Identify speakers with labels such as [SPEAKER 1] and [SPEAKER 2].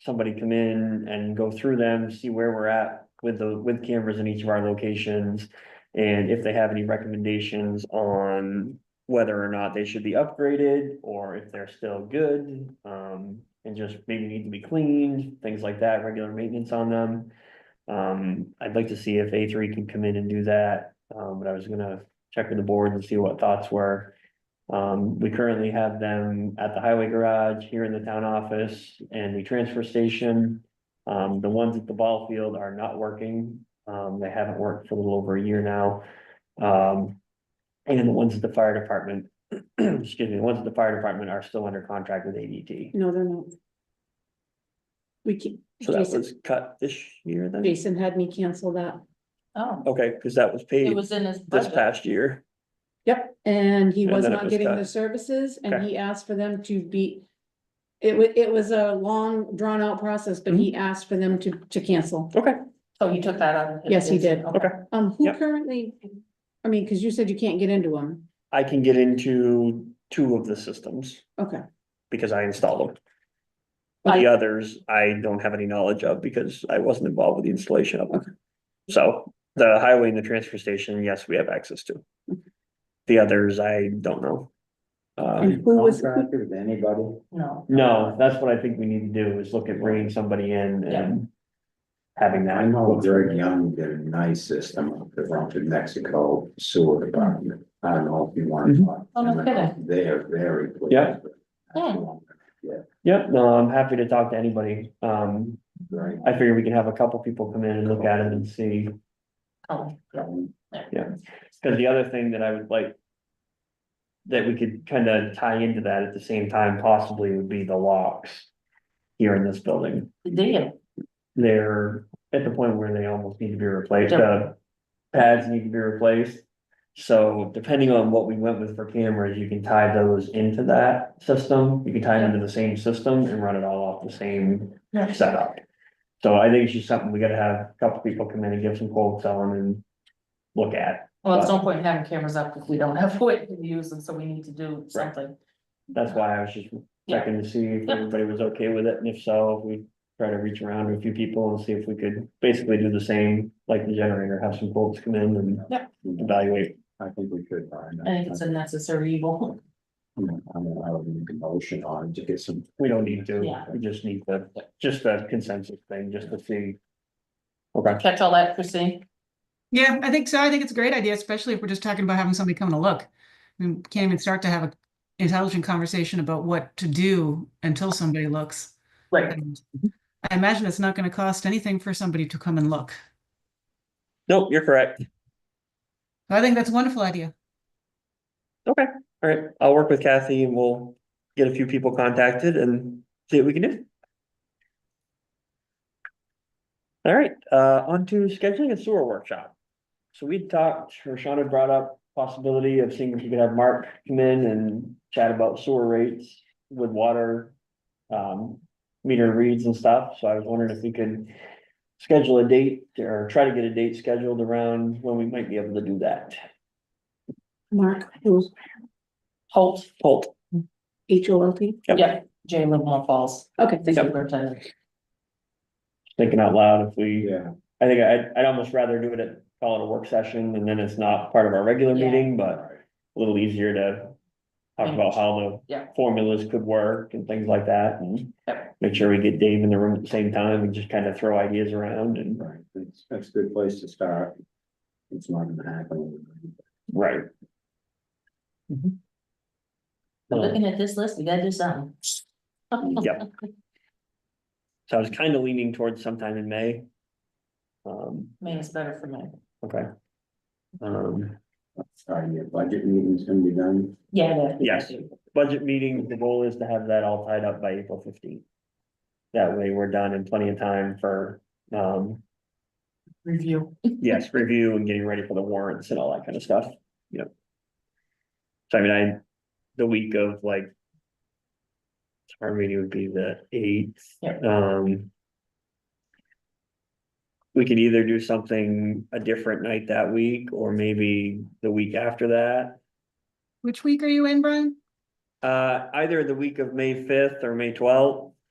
[SPEAKER 1] somebody come in and go through them, see where we're at with the, with cameras in each of our locations. And if they have any recommendations on whether or not they should be upgraded or if they're still good. Um, and just maybe need to be cleaned, things like that, regular maintenance on them. Um, I'd like to see if A three can come in and do that, um, but I was gonna check with the board and see what thoughts were. Um, we currently have them at the highway garage, here in the town office, and the transfer station. Um, the ones at the ball field are not working, um, they haven't worked for a little over a year now. Um, and the ones at the fire department, excuse me, the ones at the fire department are still under contract with ADT.
[SPEAKER 2] No, they're not. We can,
[SPEAKER 1] So that
[SPEAKER 2] Jason,
[SPEAKER 1] was cut this year then?
[SPEAKER 2] Jason had me cancel that.
[SPEAKER 3] Oh,
[SPEAKER 1] Okay, because that was paid
[SPEAKER 3] it was in his
[SPEAKER 1] this
[SPEAKER 3] budget.
[SPEAKER 1] past year.
[SPEAKER 2] Yep, and he
[SPEAKER 1] And
[SPEAKER 2] was
[SPEAKER 1] then it
[SPEAKER 2] not
[SPEAKER 1] was
[SPEAKER 2] getting
[SPEAKER 1] done.
[SPEAKER 2] the services and
[SPEAKER 1] Okay.
[SPEAKER 2] he asked for them to be. It wa- it was a long drawn out process, but
[SPEAKER 1] Mm-hmm.
[SPEAKER 2] he asked for them to to cancel.
[SPEAKER 1] Okay,
[SPEAKER 3] So Oh, you took that out? of his- Oh,
[SPEAKER 2] Yes, he did.
[SPEAKER 3] Okay.
[SPEAKER 2] Um, who
[SPEAKER 1] Yep.
[SPEAKER 2] currently, I mean, cause you said you can't get into them.
[SPEAKER 1] I can get into two of the systems
[SPEAKER 2] Okay,
[SPEAKER 1] because I installed them.
[SPEAKER 3] I-
[SPEAKER 1] The others, I don't have any knowledge of because I wasn't involved with the installation of them. So the highway and the transfer station, yes, we have access to. The others, I don't know.
[SPEAKER 2] and
[SPEAKER 1] Um,
[SPEAKER 2] who was, who-
[SPEAKER 4] Contractors, anybody,
[SPEAKER 3] No.
[SPEAKER 1] no, that's what I think we need to do is look at bringing somebody in and having
[SPEAKER 4] I
[SPEAKER 1] that.
[SPEAKER 4] know Greg Young did a nice system up the front of Mexico sewer department, I don't know if you want.
[SPEAKER 1] Mhm.
[SPEAKER 4] to.
[SPEAKER 3] Oh, no kidding.
[SPEAKER 4] They are very. pleased
[SPEAKER 1] Yeah.
[SPEAKER 4] with
[SPEAKER 3] Hmm.
[SPEAKER 4] that.
[SPEAKER 1] Yep, no, I'm happy to talk to anybody. Um,
[SPEAKER 4] Right.
[SPEAKER 1] I figure we can have a couple people come in and look at it and see.
[SPEAKER 3] Oh, yeah.
[SPEAKER 1] Cause the other thing that I would like. That we could kind of tie into that at the same time possibly would be the locks. Here in this building,
[SPEAKER 3] Did,
[SPEAKER 1] they're at the point where they almost need to be replaced,
[SPEAKER 3] Yep.
[SPEAKER 1] the. Pads need to be replaced. So depending on what we went with for cameras, you can tie those into that system, you can tie them into the same system and run it all off the same
[SPEAKER 3] Yeah.
[SPEAKER 1] setup. So I think it's just something we gotta have a couple people come in and give some quotes on and look at,
[SPEAKER 3] well, it's no point in having cameras up if we don't have a way to use them, so we need to do something.
[SPEAKER 1] that's why I was just
[SPEAKER 3] Yeah,
[SPEAKER 1] checking to see if
[SPEAKER 3] Yeah.
[SPEAKER 1] everybody was okay with it, and if so, if we try to reach around to a few people and see if we could basically do the same, like the generator, have some folks come in and evaluate.
[SPEAKER 4] I think we could. find
[SPEAKER 3] I think it's a necessary evil.
[SPEAKER 4] I'm gonna have a motion on to get some.
[SPEAKER 1] We don't need to,
[SPEAKER 3] Yeah.
[SPEAKER 1] we just need the, just the consensus thing, just to see. Okay,
[SPEAKER 3] Catch all that, Christine?
[SPEAKER 5] Yeah, I think so. I think it's a great idea, especially if we're just talking about having somebody come to look. We can't even start to have an intelligent conversation about what to do until somebody looks.
[SPEAKER 3] Right.
[SPEAKER 5] And I imagine it's not going to cost anything for somebody to come and look.
[SPEAKER 1] nope, you're correct,
[SPEAKER 5] So I think that's a wonderful idea.
[SPEAKER 1] all right, I'll work with Kathy and we'll get a few people contacted and see what we can do. All right, uh, on to scheduling a sewer workshop. So we talked, Rashawn had brought up possibility of seeing if you could have Mark come in and chat about sewer rates with water. Um, meter reads and stuff, so I was wondering if we could. Schedule a date or try to get a date scheduled around when we might be able to do that.
[SPEAKER 2] Mark, who's
[SPEAKER 3] Holt,
[SPEAKER 1] Holt,
[SPEAKER 2] H O L T?
[SPEAKER 1] Yep.
[SPEAKER 3] yeah, Jay Livermore Falls.
[SPEAKER 2] Okay, thank you.
[SPEAKER 3] Superintendent.
[SPEAKER 1] thinking out loud if we.
[SPEAKER 4] Yeah,
[SPEAKER 1] I think I'd, I'd almost rather do it at, call it a work session and then it's not part of our regular
[SPEAKER 3] Yeah.
[SPEAKER 1] meeting, but a little easier to. Talk about how the
[SPEAKER 3] Yeah.
[SPEAKER 1] formulas could work and things like that and
[SPEAKER 3] Yep.
[SPEAKER 1] make sure we get Dave in the room at the same time and just kind of throw ideas around and,
[SPEAKER 4] right, that's, that's a good place to start. It's not gonna happen.
[SPEAKER 1] right.
[SPEAKER 3] But Looking at this list, we gotta do something.
[SPEAKER 1] Yep. um, So I was kind of leaning towards sometime in May. Um,
[SPEAKER 3] May is better for me.
[SPEAKER 1] okay. Um,
[SPEAKER 4] Sorry, your budget meeting's gonna be done.
[SPEAKER 3] Yeah. that-
[SPEAKER 1] Yes. budget meeting, the goal is to have that all tied up by April fifteenth. That way we're done in plenty of time for, um,
[SPEAKER 3] Review.
[SPEAKER 1] Yes, review and getting ready for the warrants and all that kind of stuff, yep. So I mean, I, the week of like. so Our meeting would be the eighth,
[SPEAKER 3] Yeah.
[SPEAKER 1] um. We could either do something a different night that week or maybe the week after that.
[SPEAKER 5] Which week are you in, Brian?
[SPEAKER 1] Uh, either the week of May fifth or May twelfth